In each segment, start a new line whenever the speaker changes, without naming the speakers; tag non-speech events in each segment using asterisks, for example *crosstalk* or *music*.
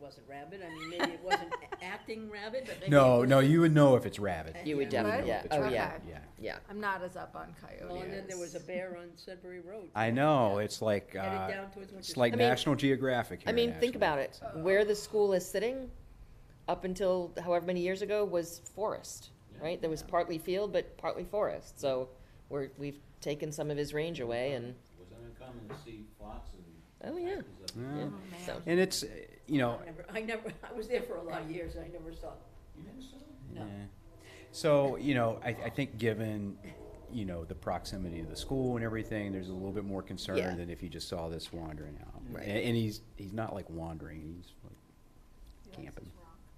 wasn't rabid, I mean, maybe it wasn't a- acting rabid, but maybe. it
No,
was-
no, you would know if it's rabid.
You
You would
Yeah.
definitely, yeah,
Right?
oh,
Okay.
yeah,
Yeah.
yeah.
I'm not as up on
Well, and then there was a
coyotes.
bear on Sudbury Road.
I know, it's like, uh,
Headed down towards.
it's
Winchester.
like
I mean-
National Geographic
I
here,
mean, think
actually.
about it, where the school is sitting, up until however many years ago, was forest, right? There was partly field, but partly forest, so we're, we've taken some of his range away and,
was uncommon to see foxes.
oh, yeah, yeah,
Yeah.
so.
And it's, uh, you know,
I never, I never, I was there for a lot of years, I never saw,
You never saw them?
no.
Yeah. So, you know, I, I think given, you know, the proximity of the school and everything, there's a little bit more concern
Yeah.
than if you just saw this wandering out.
Right.
And, and he's he's not like wandering, he's like camping.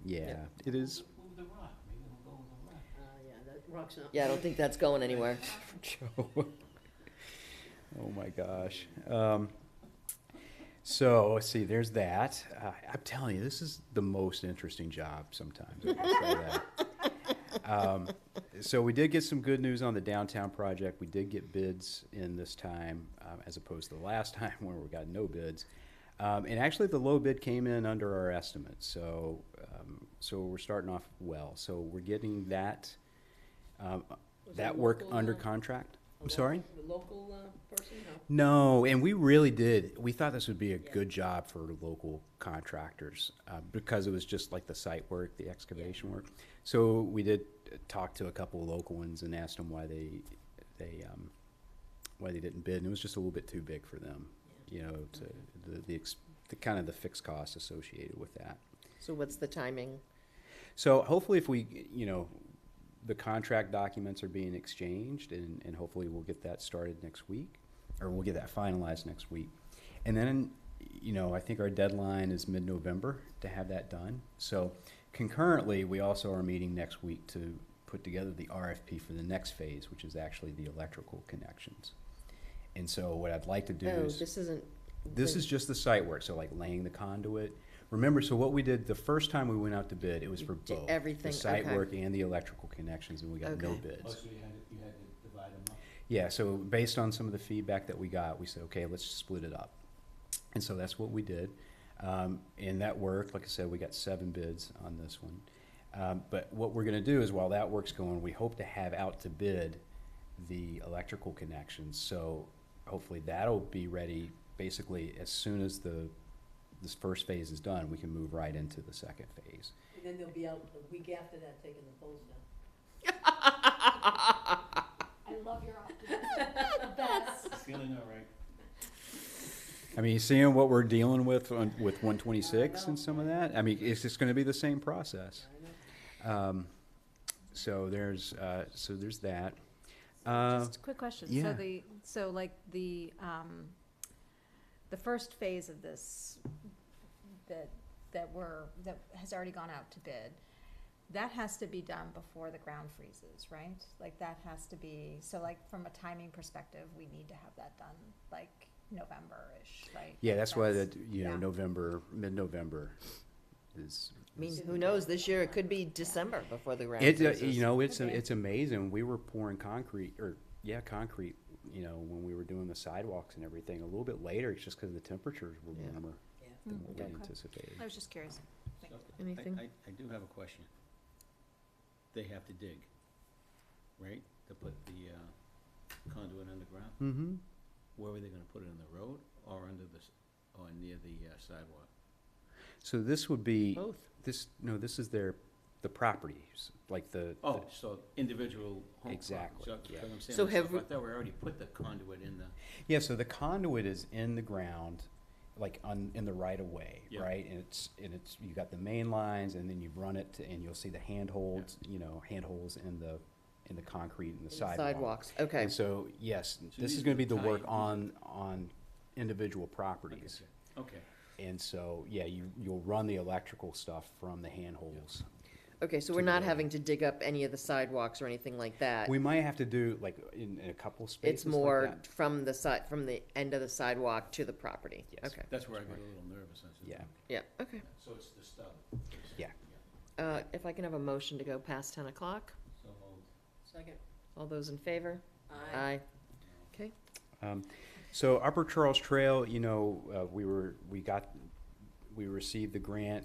Yeah, it is.
Move the rock, maybe we'll go with the rock.
Oh, yeah, that rock's not.
Yeah, I don't think that's going anywhere.
Joe. *laughs* oh my gosh. Um, so let's see. There's that. Uh, I'm telling you, this is the most interesting job sometimes. I can say that. um, so we did get some good news on the downtown project. We did get bids in this time, um, as opposed to the last *laughs* time where we got no bids. Um, and actually, the low bid came in under our estimate. So um, so we're starting off well. So we're getting that. Um,
Was
that
it
work
local,
under
uh,
contract?
Oh,
I'm sorry?
The local uh, person, no.
No, and we really did. We thought this would be a good job for local contractors uh, because it was just like the site work, the excavation work. So we did uh, talk to a couple of local ones and asked them why they, they, um, why they didn't bid, and it was just a little bit too big for them, you know, to, the, the, ex- the kind of the fixed costs associated with that.
So what's the timing?
So hopefully if we, you know, the contract documents are being exchanged and, and hopefully we'll get that started next week, or we'll get that finalized next week. And then, you know, I think our deadline is mid-November to have that done. So concurrently, we also are meeting next week to put together the RFP for the next phase, which is actually the electrical connections. And so what I'd like to do
Oh,
is.
this isn't.
This
the-
is just the site work, so like laying the conduit. Remember, so what we did the first time we went out to bid, it was
You
for
did
both.
everything,
The site
okay.
work and the electrical connections, and we got no
Okay.
Oh,
bids.
so you had, to- you had to divide them up? *laughs*
Yeah, so based on some of the feedback that we got, we said, okay, let's split it up. And so that's what we did. Um, and that worked. Like I said, we got seven bids on this one. Um, but what we're gonna do is while that work's going, we hope to have out to bid the electrical connections. So hopefully that'll be ready basically as soon as the, this first phase is done, we can move right into the second phase.
And then they'll be out a week after that taking the poles down.
I love your optimism.
Feeling all right.
I mean, seeing what we're dealing with on, with one twenty-six and some of that, I mean, it's just gonna be the same process.
I know.
Um, so there's, uh, so there's that. Uh,
Just a quick question.
yeah.
So the, so like the, um, the first phase of this, that, that we're, that has already gone out to bid, that has to be done before the ground freezes, right? Like that has to be, so like from a timing perspective, we need to have that done like November-ish, right?
yeah, that's why
That's-
that, you know,
yeah.
November, mid-November is.
I mean, who knows, this year it could be December before the ground
It, uh,
freezes.
you know, it's,
Okay.
it's amazing. We were pouring concrete or, yeah, concrete, you know, when we were doing the sidewalks and everything a little bit later, it's just because the temperatures were
Yeah.
warmer
Yeah.
than what we
Hmm, Okay.
anticipated.
I was just curious.
So,
Anything?
I, I, I do have a question. They have to dig, right, to put the uh, conduit underground?
Mm-hmm.
Where were they gonna put it, in the road or under the, s- or near the uh, sidewalk?
So this would be,
Both.
this, no, this is their, the properties, like the.
Oh, so individual home.
Exactly, yeah.
So
So
have
have
we-
I thought we already put the conduit in the.
Yeah, so the conduit is in the ground, like on, in the right of way,
Yeah.
right? And it's, and it's, you got the main lines and then you run it and you'll see the handholds, you know, handholds in the, in the concrete and the sidewalk.
Sidewalks, okay,
And so, yes,
So
this
these
is gonna
are
be the work
tied.
on, on individual properties.
Okay.
And so, yeah, you, you'll run the electrical stuff from the handholds.
okay,
to
so we're
the road.
not having to dig up any of the sidewalks or anything like that.
We might have to do like in, in a couple spaces
It's
like
more
that.
from the side, from the end of the sidewalk to the property.
Yes.
Okay,
That's where I got a little nervous. I said,
Yeah.
yeah, okay.
So it's the stub.
Yeah.
Uh, if I can have a motion to go past ten o'clock,
So moved.
Second,
all those in favor?
I,
Okay,
Um, so Upper Charles Trail, you know, uh, we were, we got, we received the grant